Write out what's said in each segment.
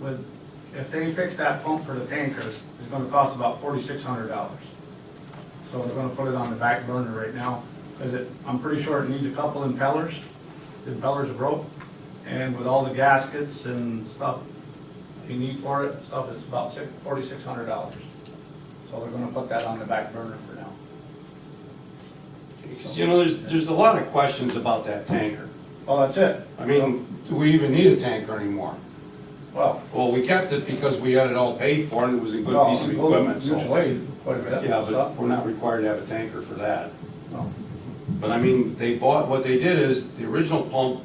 with, if they fix that pump for the tanker, it's gonna cost about forty-six hundred dollars. So we're gonna put it on the back burner right now, because it, I'm pretty sure it needs a couple impellers, the impellers broke, and with all the gaskets and stuff you need for it, stuff, it's about six, forty-six hundred dollars. So we're gonna put that on the back burner for now. 'Cause, You know, there's, there's a lot of questions about that tanker. Well, that's it, I mean, do we even need a tanker anymore? well. Well, we kept it because we had it all paid for and it was a good well, piece of we'll equipment, use so. weight quite a bit, Yeah, so- but we're not required to have a tanker for that. no. But I mean, they bought, what they did is, the original pump,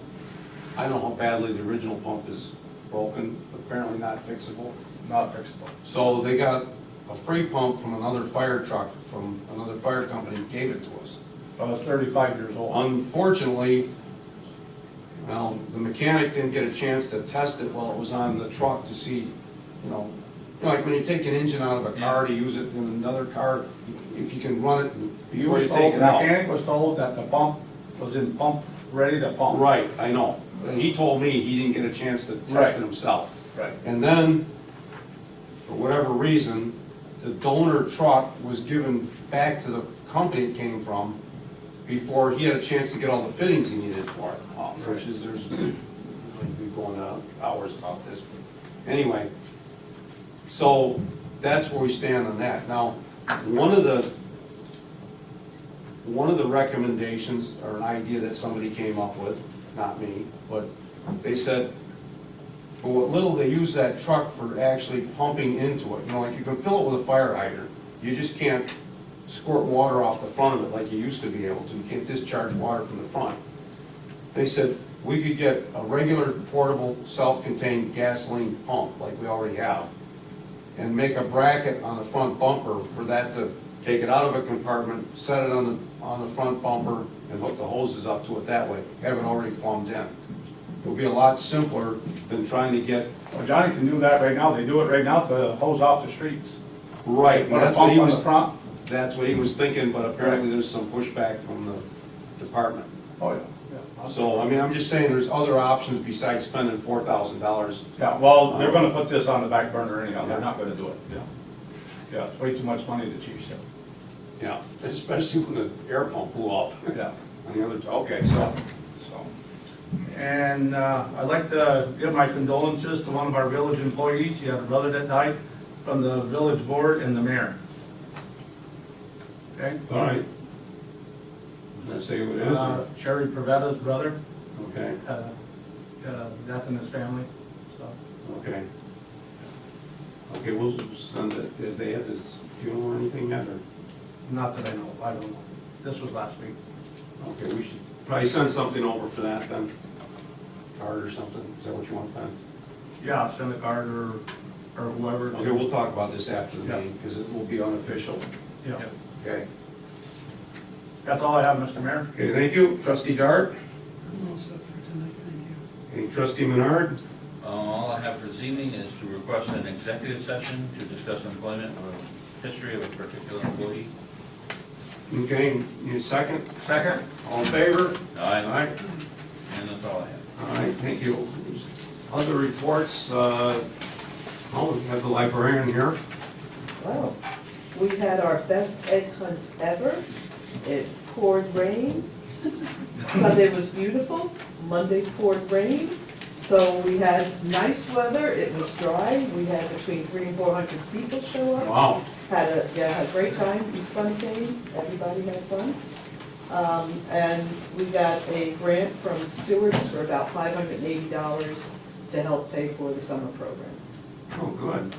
I don't know how badly the original pump is broken, apparently not fixable. Not fixable. So they got a free pump from another fire truck, from another fire company, gave it to us. Well, it's thirty-five years old. Unfortunately, well, the mechanic didn't get a chance to test it while it was on the truck to see, you know, you know, like when you take an engine out of a car to use it in another car, if you can run it He before was you take told, the it out. mechanic was told that the pump was in pump, ready to pump. Right, I know. He told me he didn't get a chance to test Right. it himself. Right. And then, for whatever reason, the donor truck was given back to the company it came from before he had a chance to get all the fittings he needed for it, off, which is, there's, we've gone on hours about this. but Anyway, so that's where we stand on that. Now, one of the, one of the recommendations or an idea that somebody came up with, not me, but they said, for what little they use that truck for actually pumping into it, you know, like you can fill it with a fire hydrant. You just can't squirt water off the front of it like you used to be able to, you can't discharge water from the front. They said, we could get a regular portable, self-contained gasoline pump like we already have and make a bracket on the front bumper for that to take it out of a compartment, set it on the, on the front bumper, and hook the hoses up to it that way, have it already plumbed in. It'll be a lot simpler than trying to get. Well, Johnny can do that right now, they do it right now to hose off the streets. Right. Put a That's what pump he on the was, front, that's what he was thinking, but apparently there's some pushback from the department. oh, yeah. So, I mean, I'm just saying, there's other options besides spending four thousand dollars. Yeah, well, they're gonna put this on the back burner anyhow, they're Yeah. not gonna do it, yeah. Yeah, it's way too much money to chief said. Yeah, especially when the air pump blew up yeah, on the other, okay, so. so. And, uh, I'd like to give my condolences to one of our village employees, he had a brother that died, from the village board and the mayor. Okay? All right. Let's see what it is, Uh, Sherry Pavetta's brother, okay, had a, had a death in his family, so. okay. Okay, we'll send it, if they have this funeral or anything yet, or, Not that I know, of, I don't know. This was last week. okay, we should probably send something over for that then. Card or something, is that what you want, Ben? Yeah, send a card or, or whoever. Okay, we'll talk about this after the meeting, because it will be unofficial, Yeah. okay? That's all I have, Mr. Mayor. Okay, thank you, trustee Dart, I'm all set for tonight, thank you. and trustee Menard, Uh, All I have for this evening is to request an executive session to discuss employment or history of a particular employee. okay, you second, Second? all in favor? All Aye, right, and that's all I have. all right, thank you. Other reports, uh, oh, we have the librarian here. Wow, we had our best egg hunt ever. It poured rain. Sunday was beautiful, Monday poured rain. So we had nice weather, it was dry, we had between three and four hundred people show up. Wow. Had a, yeah, had a great time, East Fun came, everybody had fun. Um, and we got a grant from Stewart's for about five hundred and eighty dollars to help pay for the summer program. Oh, good.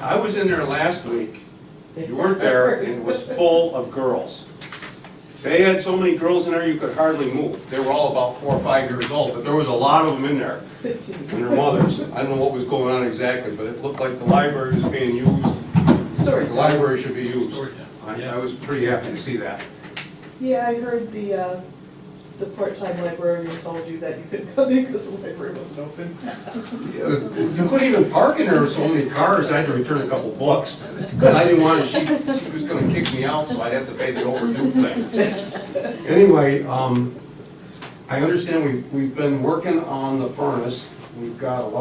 I was in there last week. You weren't there, and it was full of girls. They had so many girls in there, you could hardly move. They were all about four or five years old, but there was a lot of them in there, Fifteen. and their mothers. I don't know what was going on exactly, but it looked like the library was being used. Story The time. library should be used. Story time. I I was pretty happy to see that. Yeah, I heard the, uh, the part-time librarian told you that you couldn't come in because the library wasn't open. uh, You couldn't even park in there with so many cars, I had to return a couple books. Because I didn't want, to- she, she was gonna kick me out, so I'd have to pay the overdue thing. Anyway, um, I understand we've, we've been working on the furnace. We've got a lot